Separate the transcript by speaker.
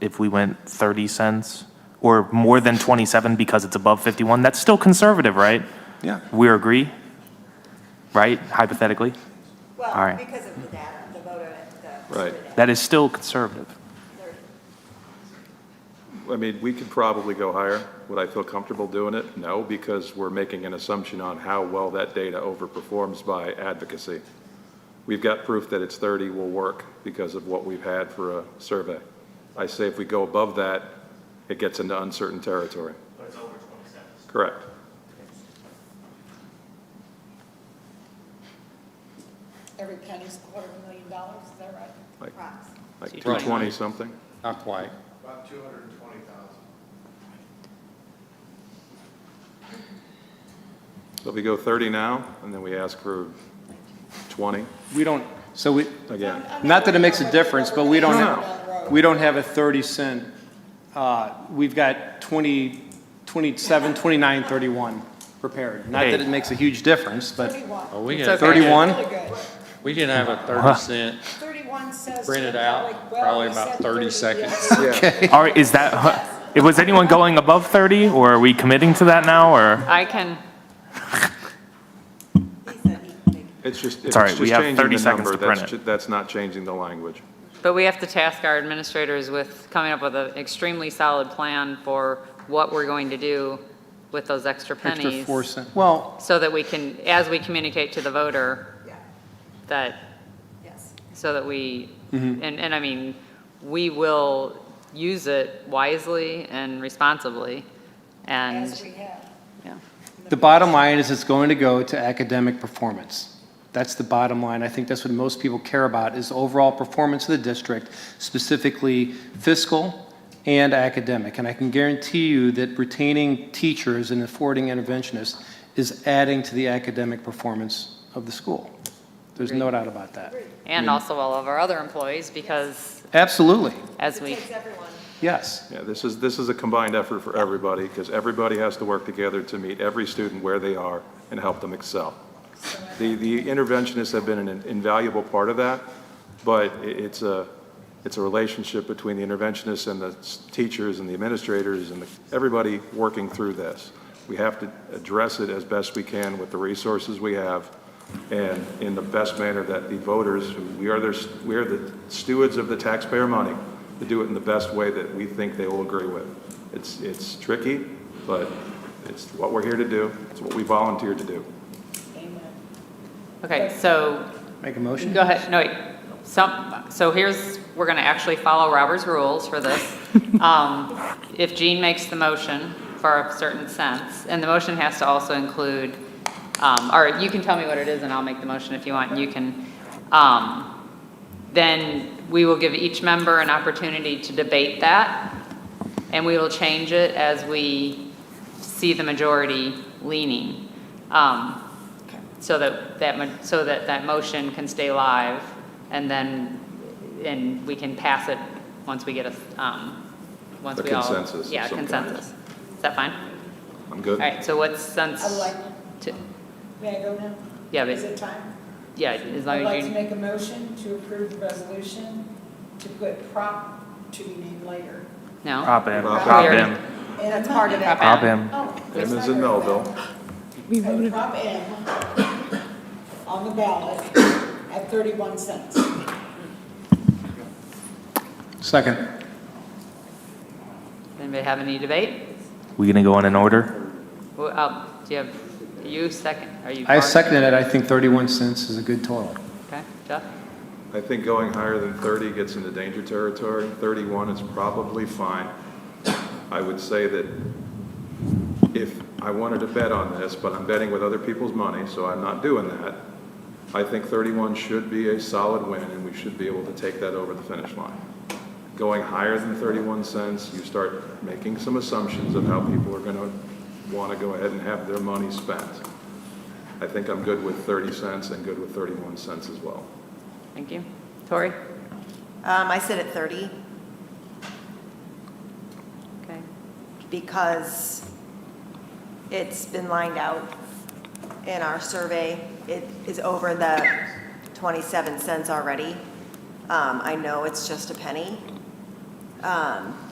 Speaker 1: if we went 30 cents or more than 27 because it's above 51, that's still conservative, right?
Speaker 2: Yeah.
Speaker 1: We agree, right? Hypothetically, All
Speaker 3: Well,
Speaker 1: right.
Speaker 3: because of the data, the voter, the.
Speaker 2: Right.
Speaker 3: survey data,
Speaker 1: that is still conservative.
Speaker 3: they're-
Speaker 2: I mean, we could probably go higher. Would I feel comfortable doing it? No, because we're making an assumption on how well that data overperforms by advocacy. We've got proof that it's 30 will work because of what we've had for a survey. I say if we go above that, it gets into uncertain territory. But it's over 27. Correct.
Speaker 4: Every penny's a quarter of a million dollars, is that right?
Speaker 2: Like,
Speaker 3: Prox.
Speaker 2: like 220 something?
Speaker 5: Not quite.
Speaker 6: About two hundred and twenty thousand.
Speaker 2: So if we go 30 now, and then we ask for 20
Speaker 5: We don't, so we,
Speaker 2: again.
Speaker 5: not that it makes a difference, but we don't,
Speaker 2: No,
Speaker 5: ha- we don't have a 30 cent, uh, we've got 20, 27, 29, 31 prepared. Not that
Speaker 1: Hey.
Speaker 5: it makes a huge difference, but
Speaker 4: Thirty-one.
Speaker 7: Well, we
Speaker 5: It's
Speaker 7: had-
Speaker 5: okay. 31?
Speaker 4: Really good.
Speaker 7: We didn't have a 30 cent,
Speaker 4: Thirty-one says.
Speaker 7: print it
Speaker 4: to
Speaker 7: out,
Speaker 4: Alec, well,
Speaker 7: probably
Speaker 4: we
Speaker 7: about
Speaker 4: said
Speaker 7: 30
Speaker 4: yeah.
Speaker 7: seconds.
Speaker 1: All right, is that, huh, was anyone going above 30 or are we committing to that now or?
Speaker 8: I can,
Speaker 3: He said he could make
Speaker 2: It's just, if
Speaker 1: It's all right,
Speaker 2: it's just
Speaker 1: we have
Speaker 2: changing
Speaker 1: 30
Speaker 2: the
Speaker 1: seconds
Speaker 2: number,
Speaker 1: to print
Speaker 2: that's
Speaker 1: it.
Speaker 2: ju- that's not changing the language.
Speaker 8: but we have to task our administrators with coming up with an extremely solid plan for what we're going to do with those extra
Speaker 5: extra
Speaker 8: pennies.
Speaker 5: 4 cent. Well,
Speaker 8: So that we can, as we communicate to the voter,
Speaker 3: Yeah.
Speaker 8: that,
Speaker 3: Yes.
Speaker 8: so that we, and, and I mean, we will use it wisely and responsibly,
Speaker 4: As
Speaker 8: and,
Speaker 4: we have.
Speaker 8: yeah.
Speaker 5: The bottom line is it's going to go to academic performance. That's the bottom line. I think that's what most people care about is overall performance of the district, specifically fiscal and academic. And I can guarantee you that retaining teachers and affording interventionists is adding to the academic performance of the school. There's no doubt about that.
Speaker 8: and also all of our other employees, because
Speaker 5: Absolutely,
Speaker 8: as
Speaker 3: It
Speaker 8: we,
Speaker 3: takes everyone.
Speaker 5: yes.
Speaker 2: Yeah, this is, this is a combined effort for everybody, because everybody has to work together to meet every student where they are and help them excel. The, the interventionists have been an invaluable part of that, but i- it's a, it's a relationship between the interventionists and the s- teachers and the administrators and the- everybody working through this. We have to address it as best we can with the resources we have and in the best manner that the voters, who we are their, s- we are the stewards of the taxpayer money, to do it in the best way that we think they will agree with. It's, it's tricky, but it's what we're here to do. It's what we volunteered to do.
Speaker 8: okay, so
Speaker 5: Make a motion?
Speaker 8: Go ahead, no, wait, some, so here's, we're gonna actually follow Robert's rules for this. Um, If Jean makes the motion for a certain sense, and the motion has to also include, um, or you can tell me what it is and I'll make the motion if you want, and you can, um, then we will give each member an opportunity to debate that, and we will change it as we see the majority leaning. Um, so that, that, mo- so that that motion can stay live, and then, and we can pass it once we get a, um, once
Speaker 2: A
Speaker 8: we all.
Speaker 2: consensus of
Speaker 8: Yeah,
Speaker 2: some kind.
Speaker 8: consensus. Is that fine?
Speaker 2: I'm
Speaker 8: All
Speaker 2: good.
Speaker 8: right, so what sense?
Speaker 4: I like,
Speaker 8: to-
Speaker 4: may I go now?
Speaker 8: Yeah,
Speaker 4: Is
Speaker 8: but,
Speaker 4: it time?
Speaker 8: yeah, as long
Speaker 4: I'd like
Speaker 8: as
Speaker 4: to
Speaker 8: you,
Speaker 4: make a motion to approve the resolution to put prop to be named later.
Speaker 8: no?
Speaker 1: Prop him,
Speaker 2: Prop
Speaker 1: prop
Speaker 8: M.
Speaker 1: him,
Speaker 4: And that's part of
Speaker 8: Prop
Speaker 1: prop
Speaker 8: M.
Speaker 1: him.
Speaker 4: Oh.
Speaker 2: M is in Melville.
Speaker 4: We voted. Oh, Prop M on the ballot at thirty-one cents.
Speaker 5: Second.
Speaker 8: Anybody have any debate?
Speaker 1: We gonna go in an order?
Speaker 8: Well, uh, do you have, you second, are you?
Speaker 5: I
Speaker 8: Bart?
Speaker 5: seconded it. I think 31 cents is a good total.
Speaker 8: Okay, Jeff?
Speaker 2: I think going higher than 30 gets into danger territory. 31 is probably fine. I would say that if I wanted to bet on this, but I'm betting with other people's money, so I'm not doing that, I think 31 should be a solid win, and we should be able to take that over the finish line. Going higher than 31 cents, you start making some assumptions of how people are going to want to go ahead and have their money spent. I think I'm good with 30 cents and good with 31 cents as well.
Speaker 8: Thank you. Tori?
Speaker 9: Um, I sit at 30
Speaker 8: Okay.
Speaker 9: because it's been lined out in our survey. It is over the 27 cents already. Um, I know it's just a penny. um,